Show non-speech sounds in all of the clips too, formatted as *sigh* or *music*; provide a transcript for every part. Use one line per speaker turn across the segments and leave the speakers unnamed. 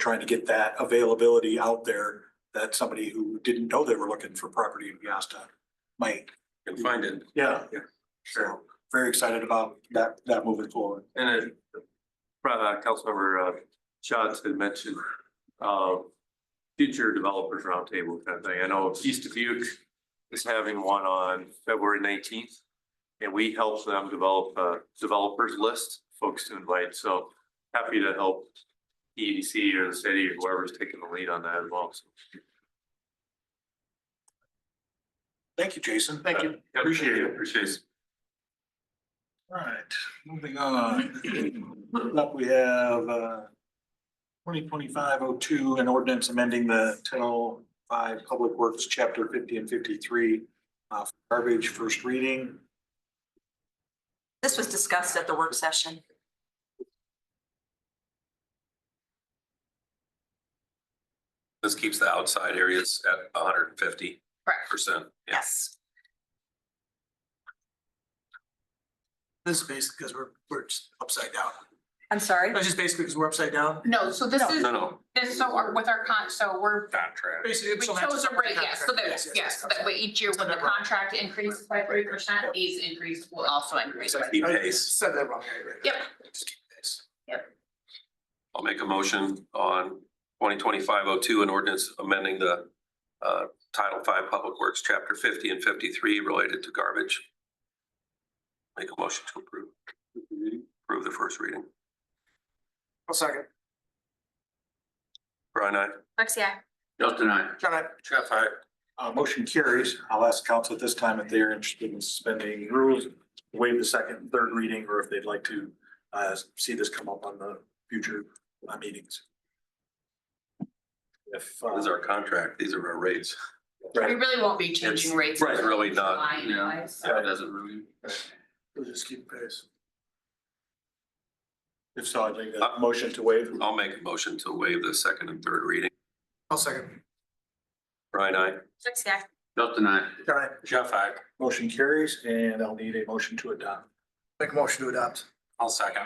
trying to get that availability out there that somebody who didn't know they were looking for property in Piasta might.
can find it,
Yeah.
Yeah.
So very excited about that, that moving forward.
and it, probably Councilmember uh, Schatz had mentioned, uh, future developers roundtable kind of thing. I know East Dubuque is having one on February nineteenth. And we help them develop a developers list, folks to invite, so happy to help EDC or the city or whoever's taking the lead on that as well. So,
Thank you, Jason.
uh, yeah,
Appreciate it.
Appreciate it.
Right, moving on. Up, we have uh twenty twenty-five oh two, an ordinance amending the ten oh five Public Works, chapter fifty and fifty-three, uh, garbage first reading.
This was discussed at the work session.
This keeps the outside areas at hundred and fifty
Correct.
percent.
Yes.
This is basically because we're, we're just upside down.
I'm sorry.
That's just basically because we're upside down.
No, so this is,
No, no,
this is so our- with our con, so we're,
contract.
Basically,
we
it's on that-
chose a rate, yes, so that, yes, so that way each year when the contract increases by three percent, these increase will also increase. by-
Keep
I
pace.
said that wrong. yeah, you're right.
Yep.
Just keep pace.
I'll make a motion on twenty twenty-five oh two, an ordinance amending the uh, Title Five Public Works, Chapter fifty and fifty-three related to garbage. Make a motion to approve. Approve the first reading.
One second.
Brian, I.
Lexi, I.
Justin, I.
John, I,
Jeff, I.
Uh, motion carries. I'll ask council at this time if they're interested in suspending rules, waive the second, and third reading, or if they'd like to uh, see this come up on the future uh, meetings. If, uh,
This is our contract. These are our rates.
We really won't be changing rates.
Right, really not,
July
yeah.
anyways.
Yeah.
doesn't really.
we'll just keep pace.
if so, I'd make a motion to waive.
I'll make a motion to waive the second and third reading.
One second.
Brian, I.
Lexi, I.
Justin, I.
John, I
Jeff, I.
Motion carries and I'll need a motion to adopt.
make a motion to adopt.
I'll second.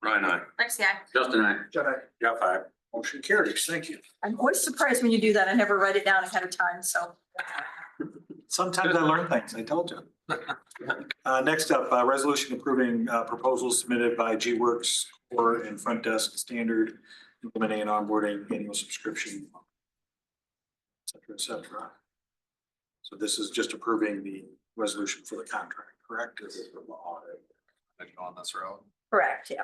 Brian, I.
Lexi, I.
Justin, I.
John, I,
Jeff, I.
Motion carries. Thank you.
I'm always surprised when you do that. I never write it down ahead of time, so.
Sometimes I learn things, I told you. Uh, next up, uh, resolution approving, uh, proposals submitted by G Works or in Front Desk Standard, implementing an onboarding annual subscription. Et cetera, et cetera. So this is just approving the resolution for the contract, correct? Is it the law?
On this road.
Correct, yeah.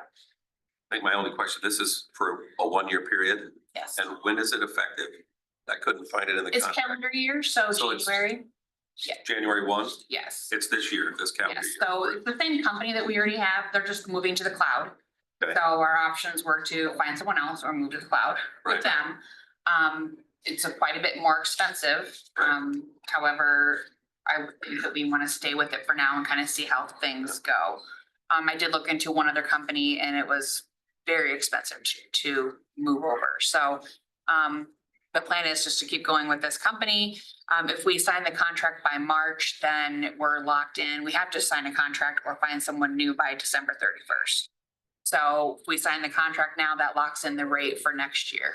I think my only question, this is for a one-year period,
Yes.
and when is it effective? I couldn't find it in the
It's
contract.
calendar year, so
So it's-
January,
January one,
yes.
it's this year, this calendar
Yes,
year.
so it's the same company that we already have, they're just moving to the cloud.
Okay.
So our options were to find someone else or move to the cloud
Right.
with them. Um, it's a quite a bit more expensive. Um, however, I would think that we want to stay with it for now and kind of see how things go. Um, I did look into one other company and it was very expensive to, to move over. So, um, the plan is just to keep going with this company. Um, if we sign the contract by March, then we're locked in. We have to sign a contract or find someone new by December thirty-first. So if we sign the contract now, that locks in the rate for next year.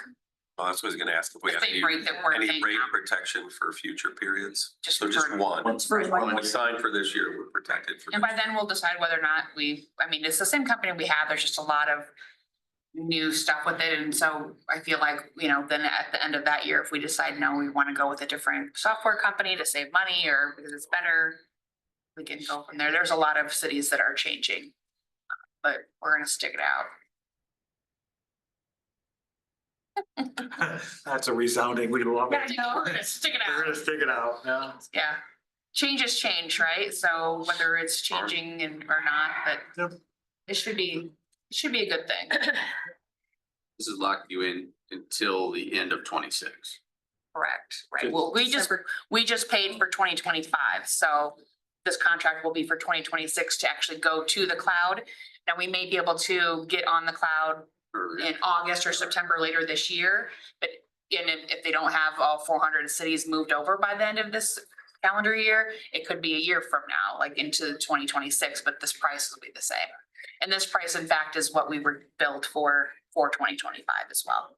Oh, That's what I was gonna ask, if we
The
have any,
same rate that we're
any
paying
rate
now.
protection for future periods?
Just
So just
for-
one.
Once-
Right.
When we sign for this year, we're protected for.
And by then we'll decide whether or not we, I mean, it's the same company we have. There's just a lot of new stuff with it. And so I feel like, you know, then at the end of that year, if we decide, no, we want to go with a different software company to save money or because it's better, we can go from there. There's a lot of cities that are changing, but we're going to stick it out.
*laughs* That's a resounding, we love it.
We're gonna Stick it
We're gonna
out.
stick it out, yeah.
Yeah. Changes change, right? So whether it's changing and or not, but
Yep.
it should be, it should be a good thing.
*coughs* This is locked you in until the end of twenty-six.
Correct, right,
Good.
well, we just, we just paid for twenty twenty-five, so this contract will be for twenty twenty-six to actually go to the cloud. Now, we may be able to get on the cloud
or-
in August or September later this year, but and if, if they don't have all four hundred cities moved over by the end of this calendar year, it could be a year from now, like into twenty twenty-six, but this price will be the same. And this price, in fact, is what we were billed for, for twenty twenty-five as well.